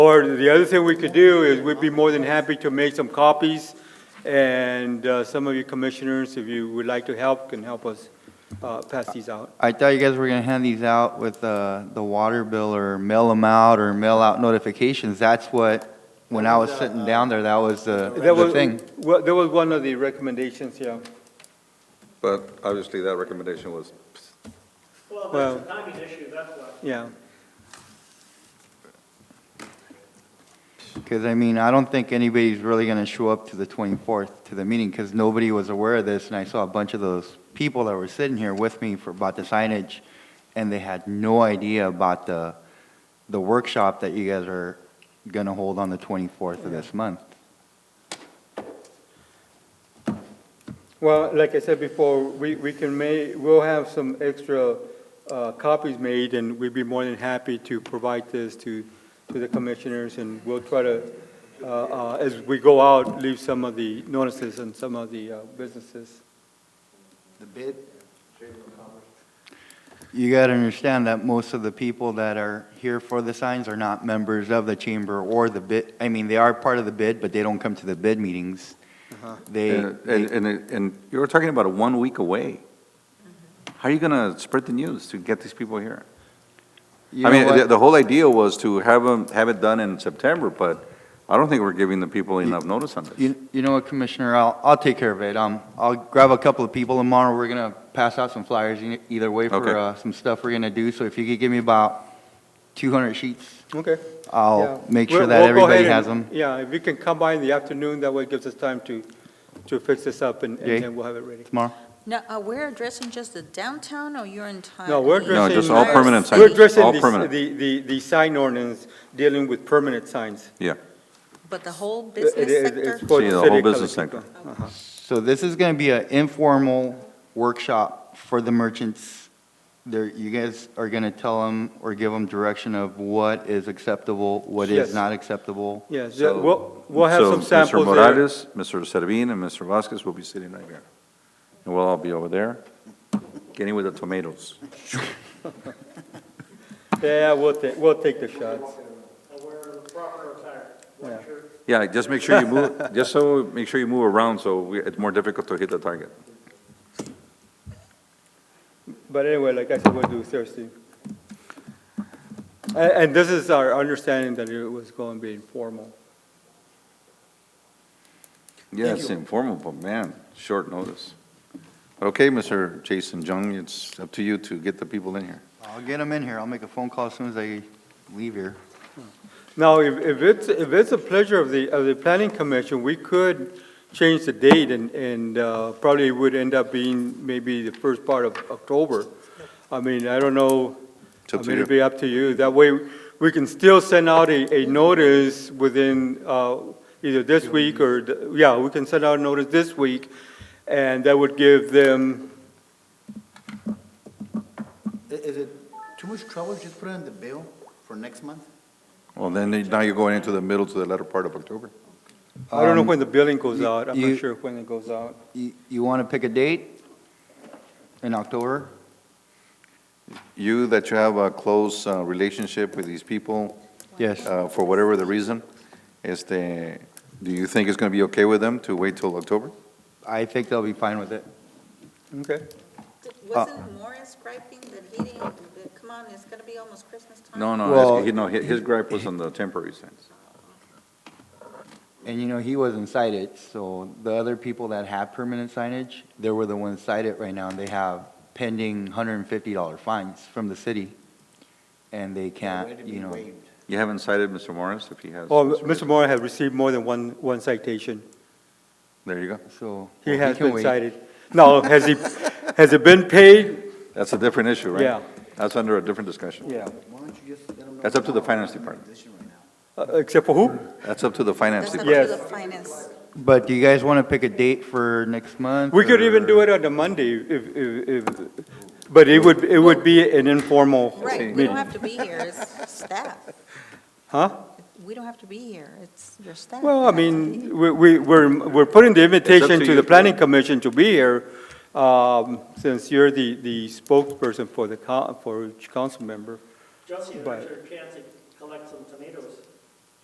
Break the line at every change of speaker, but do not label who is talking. Or the other thing we could do is we'd be more than happy to make some copies, and uh, some of you commissioners, if you would like to help, can help us uh, pass these out.
I thought you guys were gonna hand these out with uh, the water bill or mail them out or mail out notifications. That's what, when I was sitting down there, that was the
That
the
was
thing.
Well, that was one of the recommendations, yeah.
But obviously, that recommendation was,
Well,
Well-
that's a timing issue, that's why.
Yeah,
Because, I mean, I don't think anybody's really gonna show up to the 24th to the meeting because nobody was aware of this. And I saw a bunch of those people that were sitting here with me for, about the signage. And they had no idea about the, the workshop that you guys are gonna hold on the 24th of this month.
well, like I said before, we, we can may, we'll have some extra uh, copies made, and we'd be more than happy to provide this to, to the commissioners, and we'll try to, uh, uh, as we go out, leave some of the notices and some of the uh, businesses.
The bid? You got to understand that most of the people that are here for the signs are not members of the chamber or the bid, I mean, they are part of the bid, but they don't come to the bid meetings.
Uh-huh.
They,
and,
they-
and, and you were talking about a one week away. How are you going to spread the news to get these people here?
you
I
know
mean, the,
what?
the whole idea was to have them, have it done in September, but I don't think we're giving the people enough notice on this.
You, you know what, Commissioner, I'll, I'll take care of it. Um, I'll grab a couple of people tomorrow. We're going to pass out some flyers e- either way
Okay.
for, uh, some stuff we're going to do. So if you could give me about 200 sheets,
Okay.
I'll
Yeah.
make sure
We'll-
that
we'll go
everybody
ahead
has
and-
them.
Yeah, if you can come by in the afternoon, that way it gives us time to, to fix this up, and
Jay?
and then we'll have it ready.
Tomorrow?
Now, are we addressing just the downtown, or you're entire?
No, we're
No,
addressing.
just all permanent signs.
We're addressing
All
the,
permanent.
the- the, the sign ordinance dealing with permanent signs.
Yeah,
But the whole
It-
business
it-
sector?
It's for
See,
the
uh, the
city
whole
of
business
Calichico. Uh-huh.
So this is going to be an informal workshop for the merchants. There, you guys are going to tell them or give them direction of what is acceptable, what
Yes.
is not acceptable.
Yes, yeah,
so.
we'll, we'll have
so
some samples
Mr.
there.
Morales, Mr. Servin, and Mr. Vasquez will be sitting right here. And we'll all be over there, getting with the tomatoes.
Yeah, we'll take, we'll take the shots.
And wear the proper attire,
Yeah.
white shirt,
Yeah, just make sure you move, just so, make sure you move around, so we- it's more difficult to hit the target.
But anyway, like I said, we'll do Thursday. And, and this is our understanding that it was going to be informal.
Yeah, it's informal, but man, short notice. Okay, Mr. Jason Jung, it's up to you to get the people in here.
I'll get them in here. I'll make a phone call as soon as I leave here.
Now, if, if it's, if it's a pleasure of the, of the planning commission, we could change the date and, and uh, probably would end up being maybe the first part of October. I mean, I don't know,
It's
I
up to
mean, it'd
you.
be up to you. That way, we can still send out a, a notice within, uh, either this week or, the- yeah, we can send out a notice this week, and that would give them,
I- Is it too much trouble just put it on the bill for next month?
Well, then, they- now you're going into the middle to the latter part of October.
I don't know
Um,
when the billing goes
you-
out, I'm
you-
not sure when it goes out.
You, you want to pick a date in October?
You, that you have a close uh, relationship with these people,
Yes.
uh, for whatever the reason, is the, do you think it's gonna be okay with them to wait till October?
I think they'll be fine with it.
Okay,
uh,
Wasn't Morris griping that he didn't, that, come on, it's gonna be almost Christmas time?
No,
Well-
no, that's- he- no, hi- his gripe was on the temporary signs.
And you know, he wasn't cited, so the other people that had permanent signage, they were the ones cited right now, and they have pending hundred and fifty dollar fines from the city. And they can't, you know,
You haven't cited Mr. Morris, if he has.
or Mr. Oh, Moore had received more than one, one citation.
There you go.
so.
He
well,
has
can
been
wait.
cited. No, has he, has it been paid?
That's a different issue, right?
Yeah.
That's under a different discussion.
Yeah.
Why don't you just let them know?
That's up to the
now?
finance
I'm in a
department.
position right now.
Uh, Except for who?
That's up to the finance
That's up
department.
to
Yes.
the finance.
But do you guys wanna pick a date for next month?
We could even do
or-
it on a Monday if, if, if, but it would, it would be an informal
Right, we don't
meeting.
have to be here, it's staff.
Huh?
We don't have to be here, it's your staff.
Well, I
that has to be
mean, we, we, we're, we're putting the
It's up
invitation
to
to
you.
the planning commission to be here, um, since you're the, the spokesperson for the, co- for each council member.
Josie,
But-
there's your chance to collect some tomatoes.